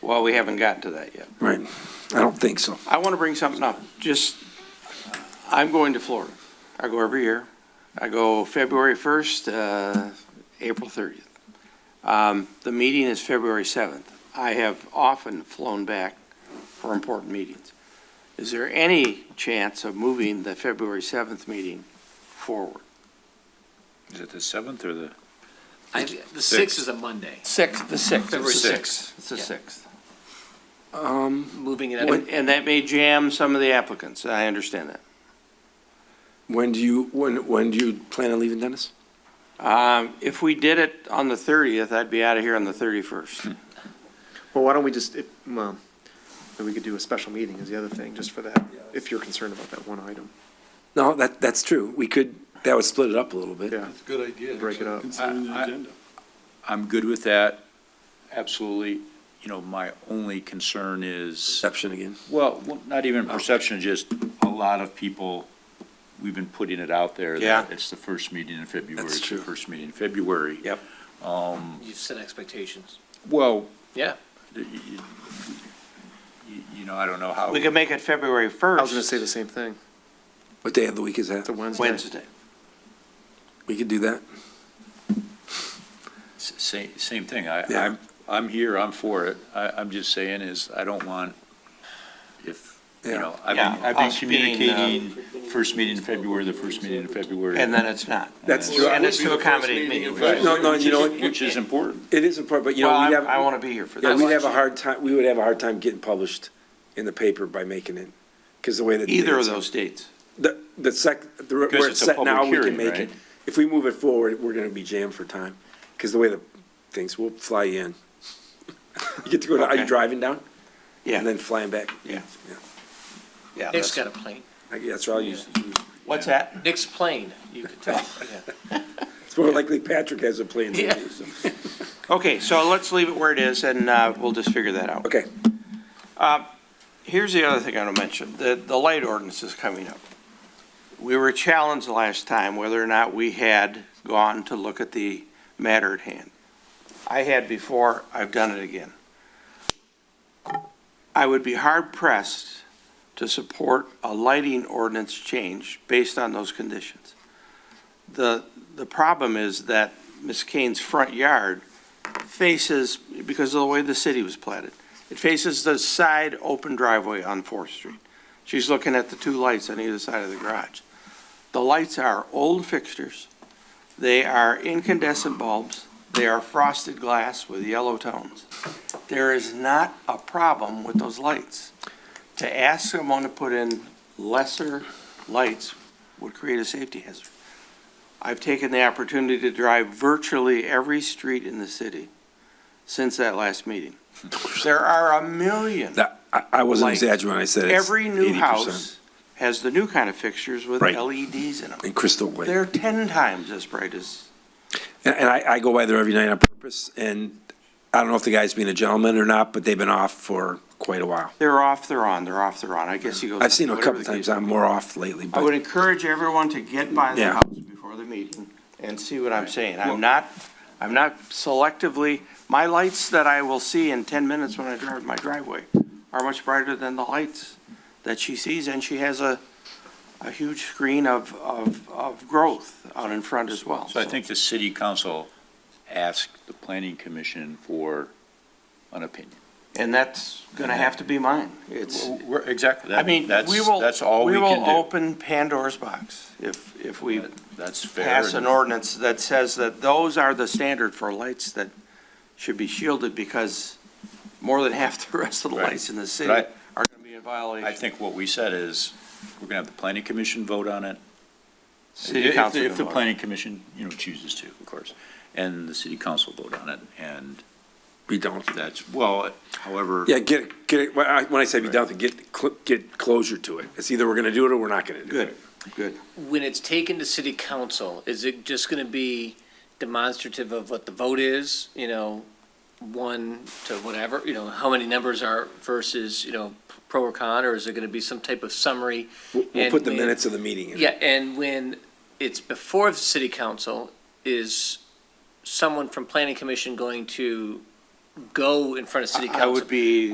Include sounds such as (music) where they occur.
Well, we haven't gotten to that yet. Right. I don't think so. I want to bring something up, just, I'm going to Florida. I go every year. I go February 1st, uh, April 30th. Um, The meeting is February 7th. I have often flown back for important meetings. Is there any chance of moving the February 7th meeting forward? Is it the seventh or the? I, the sixth is a Monday, Sixth, the 6th. February sixth. It's the Yeah. 6th. Um, moving it up. And and that may jam some of the applicants, I understand that. when do you, when, when do you plan on leaving, Dennis? Um, If we did it on the 30th, I'd be out of here on the 31st. Well, why don't we just, if- well, then we could do a special meeting is the other thing, just for that, if you're concerned about that one item. No, that, that's true. We could, that would split it up a little bit. Yeah, That's a good idea. Break it up. Considering the I- I- agenda. I'm good with that, absolutely. You know, my only concern is, Exception again. well, well, not even perception, just a lot of people, we've been putting it out there. that Yeah. It's the first meeting in February. That's it's the true. First meeting in February. Yep. Um, You set expectations. well. Yeah. You, you- you- you know, I don't know how. We could make it February 1st. I was gonna say the same thing, What day of the week is that? it's a Wednesday. Wednesday. We could do that. S- Same, same thing. I, Yeah. I'm, I'm here, I'm for it. I, I'm just saying is, I don't want, if, you Yeah. know, I've Yeah, been, I've been us being, uh, communicating first meeting in February, the first meeting in February. And then it's not. That's Uh, true. And it's Be to the first accommodate me. meeting in Right. February. No, no, you know, Which is- Which is important. It is important, but you know, Well, we'd I'm- have. I want to be here for Yeah, that. we'd have a hard time, we would have a hard time getting published in the paper by making it, because the way that. Either of those dates. The, the sec, the, Because where it's it's a set now, public we can hearing, make right? it. If we move it forward, we're gonna be jammed for time, because the way the things, we'll fly you in. (laughs) You get to go, to- are you Okay. driving down? Yeah. And then flying back? Yeah. Yeah. Yeah, that's- Nick's got a plane. I guess that's all you, What's that? Nick's plane, you could tell. (laughs) Yeah. it's more likely Patrick has a plane than Yeah. you, so. Okay, so let's leave it where it is, and uh, we'll just figure that out. Okay, Uh, Here's the other thing I want to mention, the, the light ordinance is coming up. We were challenged last time whether or not we had gone to look at the matter at hand. I had before, I've done it again. I would be hard pressed to support a lighting ordinance change based on those conditions. The, the problem is that Ms. Kane's front yard faces, because of the way the city was platted, it faces the side open driveway on Fourth Street. She's looking at the two lights on either side of the garage. The lights are old fixtures. They are incandescent bulbs. They are frosted glass with yellow tones. There is not a problem with those lights. To ask someone to put in lesser lights would create a safety hazard. I've taken the opportunity to drive virtually every street in the city since that last meeting. There are a million. that, I, I wasn't Like, exaggerating when I said it's Every new 80%. house has the new kind of fixtures with Right. LEDs in them. And crystal white. They're 10 times as bright as, And, and I, I go by there every night on purpose, and I don't know if the guy's being a gentleman or not, but they've been off for quite a while. they're off, they're on, they're off, they're on. I guess you go. I've seen them a whatever couple the case times, may I'm be. more off lately, I would but encourage everyone to get by the Yeah. house before the meeting and see what I'm saying. I'm not, I'm not selectively, my lights that I will see in 10 minutes when I drive my driveway are much brighter than the lights that she sees, and she has a, a huge screen of, of, of growth out in front as well. So I think the city council asked the planning commission for an opinion. And that's going to have to be mine. It's, We're- Exactly. I mean, That's- we will, That's all we we will can open Pandora's box if, if we do. That's fair. pass and- an ordinance that says that those are the standard for lights that should be shielded because more than half the rest of the Right. lights in the city are But going to be in I, I violation. think what we said is, we're gonna have the planning commission vote on it. City If- council If the can vote. planning commission, you know, chooses to, of course, and the city council vote on it, and we don't. that's, well, however. Yeah, get, it- get, it- when I- when I say be done, with it, get, cl- get closure to it. It's either we're gonna do it or we're not gonna do it. Good, good. When it's taken to city council, is it just gonna be demonstrative of what the vote is, you know, one to whatever, you know, how many numbers are versus, you know, pro or con, or is it gonna be some type of summary? We'll, we'll And put the we- minutes of the meeting in. Yeah, and when it's before the city council, is someone from planning commission going to go in front of city council. I would be